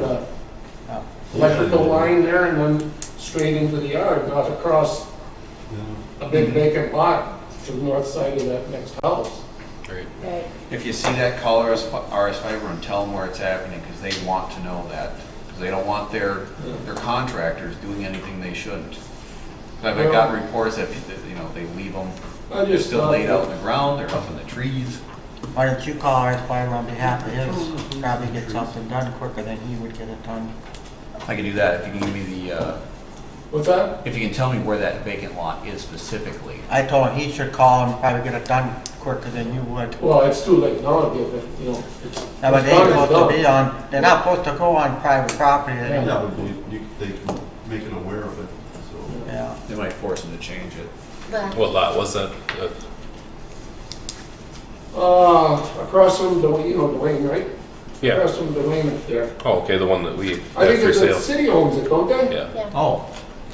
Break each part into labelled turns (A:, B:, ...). A: uh, electrical line there and went straight into the yard, not across a big vacant lot to the north side of that next house.
B: Great.
C: Right.
D: If you see that, call RS, fi- RS Fiber and tell them where it's happening, because they want to know that. Because they don't want their, their contractors doing anything they shouldn't. 'Cause I've gotten reports that, that, you know, they leave them,
A: I
D: they're
A: just
D: still
A: thought
D: laid out in
A: that-
D: the ground, they're up in the trees.
E: Why don't you call Art Farm on behalf of his, probably get something done quicker than he would get it done.
D: I can do that if you can give me the, uh,
A: What's that?
D: if you can tell me where that vacant lot is specifically.
E: I told him he should call and probably get it done quicker than you would.
A: Well, it's too late now to give it, you know. it's-
E: Now, but
A: it's
E: they
A: done,
E: ain't
A: it's
E: supposed
A: done.
E: to be on, they're not supposed to go on private property, they
A: Yeah.
E: don't-
F: Yeah, but you- you- they can make it aware of it, so.
E: yeah.
D: They might force them to change it.
C: But
B: What lot was that? Uh,
A: Uh, across from Dwayne, you know Dwayne, right?
B: Yeah.
A: Across from Dwayne there.
B: Oh, okay, the one that we had
A: I think
B: for
A: it's the
B: sale.
A: city owns it, don't they?
B: Yeah,
D: Oh.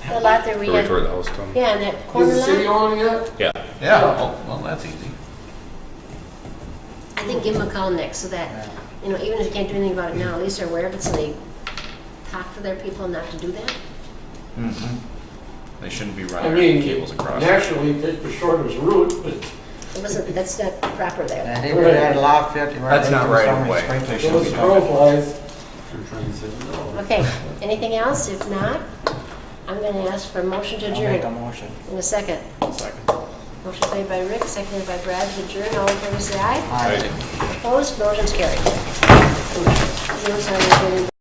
C: the lot that we
B: where we
C: had,
B: tore the house down.
C: yeah, and that corner
A: Is the city
C: lot,
A: owning it?
B: Yeah,
D: Yeah, oh, well, that's easy.
C: I think give them a call next so that, you know, even if you can't do anything about it now, at least they're aware of it, so they talk to their people not to do that.
D: They shouldn't be
A: I
D: running
A: mean,
D: cables across.
A: naturally, take the shortest route, but
C: It wasn't, that's not proper there.
E: I think we had a lot of fifty. where
D: That's
E: they
D: not
E: do
D: right
E: some
D: of way.
E: restrictions.
D: They should
A: those
D: be done.
A: profiles,
F: You're trying to say no.
C: Okay, anything else? If not, I'm gonna ask for a motion to
E: I'll make a
C: adjourn
E: motion.
C: in a second. Motion made by Rick, seconded by Brad to adjourn. All in favor, say aye.
E: Aye.
B: Right.
C: Opposed, motion's carried. Those are the-